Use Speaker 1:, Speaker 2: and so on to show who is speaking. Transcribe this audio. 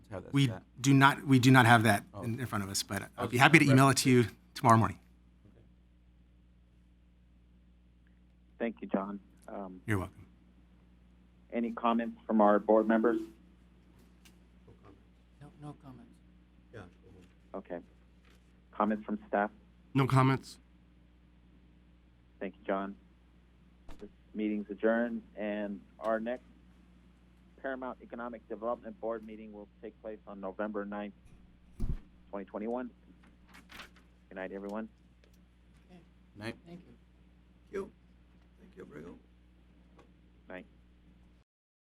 Speaker 1: have that
Speaker 2: We
Speaker 1: stat.
Speaker 2: do not, we do not have that in in front of us, but I'd be happy to email it to you tomorrow morning.
Speaker 3: Thank you, John. Um,
Speaker 2: You're welcome.
Speaker 3: any comments from our board members?
Speaker 4: No, no comments.
Speaker 3: Okay. Comments from staff?
Speaker 5: No comments.
Speaker 3: Thank you, John. This meeting's adjourned, and our next Paramount Economic Development Board meeting will take place on November 9th, 2021. Good night, everyone.
Speaker 1: Night.
Speaker 4: Thank you.
Speaker 6: Thank you. Thank you, Abrego.